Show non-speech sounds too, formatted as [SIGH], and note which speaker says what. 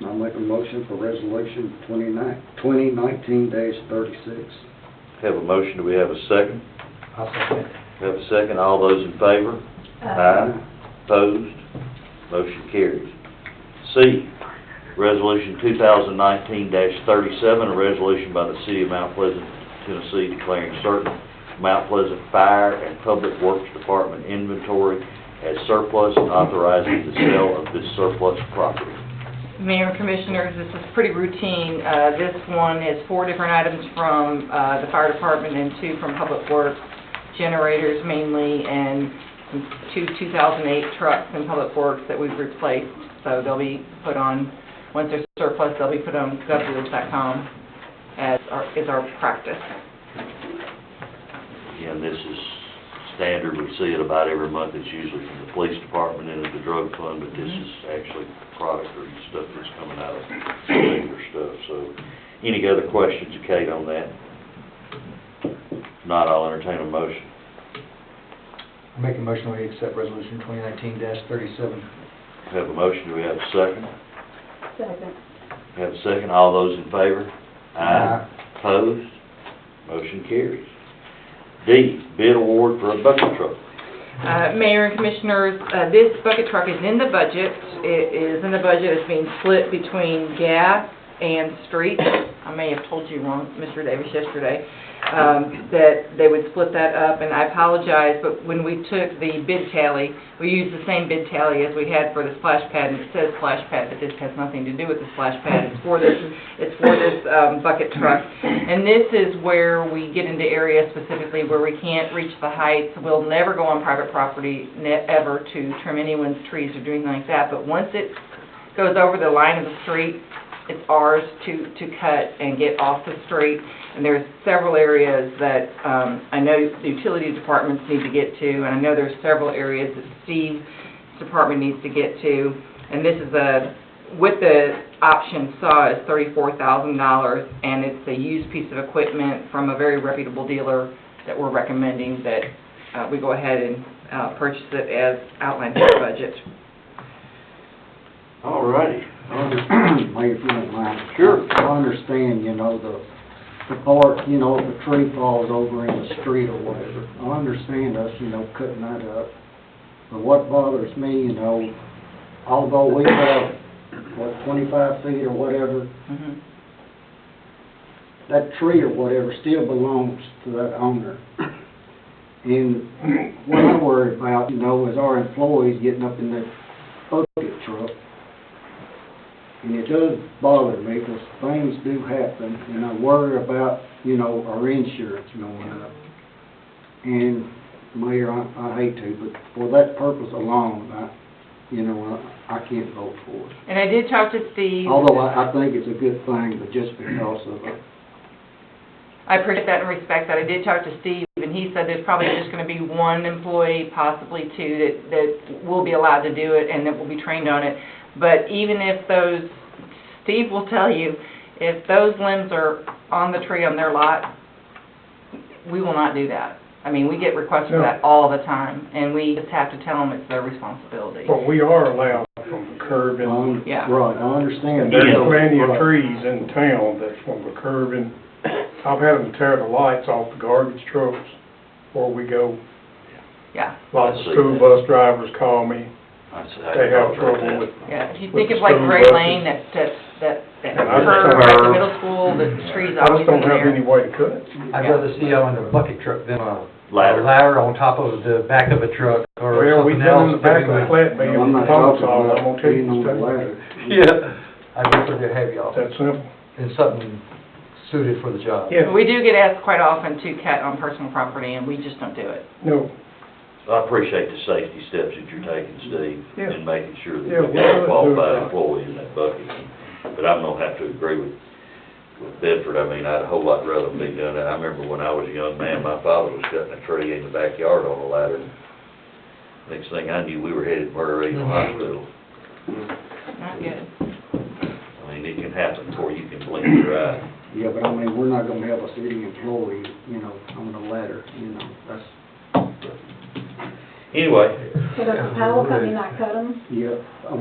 Speaker 1: make a motion for resolution 29 2019 dash 36.
Speaker 2: Have a motion, do we have a second?
Speaker 3: I'll second it.
Speaker 2: Have a second, all those in favor? Aye. Opposed? Motion carries. C, Resolution 2019-37, a resolution by the City of Mount Pleasant, Tennessee declaring certain Mount Pleasant Fire and Public Works Department inventory as surplus and authorizing the sale of this surplus property.
Speaker 4: Mayor and Commissioners, this is pretty routine. Uh, This one is four different items from uh, the fire department and two from public works, generators mainly, and two 2008 trucks in public works that we've replaced. So they'll be put on, once they're surplus, they'll be put on govdeals.com as our, is our practice.
Speaker 2: Again, this is standard, we see it about every month, it's usually from the police department into the drug fund, but this is actually product or stuff that's coming out of labor stuff, so. Any other questions, Kate, on that? If Not, I'll entertain a motion.
Speaker 3: I Make a motion we accept resolution 2019-37.
Speaker 2: Have a motion, do we have a second?
Speaker 5: Second.
Speaker 2: Have a second, all those in favor?
Speaker 3: Aye.
Speaker 2: Opposed? Motion carries. D, bid award for a bucket truck.
Speaker 4: Uh, Mayor and Commissioners, uh, this bucket truck is in the budget. It is in the budget, it's being split between gas and street. I may have told you wrong, Mr. Davis, yesterday, um, that they would split that up, and I apologize, but when we took the bid tally, we used the same bid tally as we had for the splash pad, and it says splash pad, but this has nothing to do with the splash pad. It's for this, it's for this um, bucket truck. And this is where we get into areas specifically where we can't reach the heights. We'll never go on private property, ne- ever, to trim anyone's trees or do anything like that. But once it goes over the line of the street, it's ours to, to cut and get off the street. And there's several areas that, um, I know the utility departments need to get to, and I know there's several areas that Steve's department needs to get to. And this is a, what the option saw is thirty-four thousand dollars, and it's a used piece of equipment from a very reputable dealer that we're recommending that, uh, we go ahead and, uh, purchase it as outlined in the budget.
Speaker 2: All righty.
Speaker 1: [CLEARS THROAT] Mayor, if you don't mind.
Speaker 2: Sure.
Speaker 1: I understand, you know, the, the part, you know, if a tree falls over in the street or whatever. I understand us, you know, cutting that up. But what bothers me, you know, although we have, what, twenty-five feet or whatever,
Speaker 4: Mhm.
Speaker 1: that tree or whatever still belongs to that owner. And what I worry about, you know, is our employees getting up in that bucket truck. And it does bother me because things do happen and I worry about, you know, our insurance going up. And Mayor, I, I hate to, but for that purpose alone, I, you know, I, I can't vote for it.
Speaker 4: And I did talk to Steve.
Speaker 1: Although I, I think it's a good thing, but just because of it.
Speaker 4: I appreciate that and respect that. I did talk to Steve, and he said there's probably just gonna be one employee, possibly two, that, that will be allowed to do it and that will be trained on it. But even if those, Steve will tell you, if those limbs are on the tree on their lot, we will not do that. I mean, we get requests for that all the time, and we just have to tell them it's their responsibility.
Speaker 6: But we are allowed from the curb and,
Speaker 1: Um,
Speaker 4: Yeah.
Speaker 1: Right, I understand.
Speaker 6: and there's
Speaker 2: Yeah.
Speaker 6: plenty of
Speaker 1: Right.
Speaker 6: trees in town that's from the curb and, I've had them tear the lights off the garbage trucks before we go.
Speaker 4: Yeah.
Speaker 6: Lots of school bus drivers call me,
Speaker 2: That's-
Speaker 6: they have trouble with,
Speaker 4: Yeah, if you
Speaker 6: With
Speaker 4: think
Speaker 6: the
Speaker 4: of like
Speaker 6: stone
Speaker 4: Gray
Speaker 6: buses.
Speaker 4: Lane, that, that, that that
Speaker 6: And I just
Speaker 4: curve at the
Speaker 6: have-
Speaker 4: middle school, the trees
Speaker 6: I
Speaker 4: always
Speaker 6: just
Speaker 4: in
Speaker 6: don't have
Speaker 4: there.
Speaker 6: any way to cut it.
Speaker 3: I'd rather see y'all in a bucket truck than a
Speaker 2: Ladder.
Speaker 3: ladder on top of the back of a truck or
Speaker 6: Well, we
Speaker 3: something
Speaker 6: done in the
Speaker 3: else.
Speaker 6: back of the flat
Speaker 1: No,
Speaker 6: man,
Speaker 1: I'm
Speaker 6: the
Speaker 1: not
Speaker 6: pumps
Speaker 1: talking
Speaker 6: all, I'm
Speaker 1: about
Speaker 6: gonna tell
Speaker 1: being
Speaker 6: you
Speaker 1: on the
Speaker 6: the
Speaker 1: ladder.
Speaker 3: Yeah, I'd rather have y'all
Speaker 6: That's simple.
Speaker 3: in something suited for the job.
Speaker 6: Yeah,
Speaker 4: We do get asked quite often to cut on personal property, and we just don't do it.
Speaker 6: no,
Speaker 2: I appreciate the safety steps that you're taking, Steve,
Speaker 6: Yeah.
Speaker 2: in making sure that
Speaker 6: Yeah,
Speaker 2: we got a
Speaker 6: well,
Speaker 2: qualified
Speaker 6: uh,
Speaker 2: employee in that bucket. But I'm gonna have to agree with, with Bedford, I mean, I'd a whole lot rather be doing that. I remember when I was a young man, my father was cutting a tree in the backyard on a ladder. Next thing I knew, we were headed for a
Speaker 6: Mm-hmm.
Speaker 2: hospital.
Speaker 4: Not good.
Speaker 2: I mean, it can happen before you can blink your eye.
Speaker 1: Yeah, but I mean, we're not gonna have a city employee, you know, on the ladder, you know, that's,
Speaker 2: Anyway,
Speaker 5: So does the power company not cut them?
Speaker 1: yeah.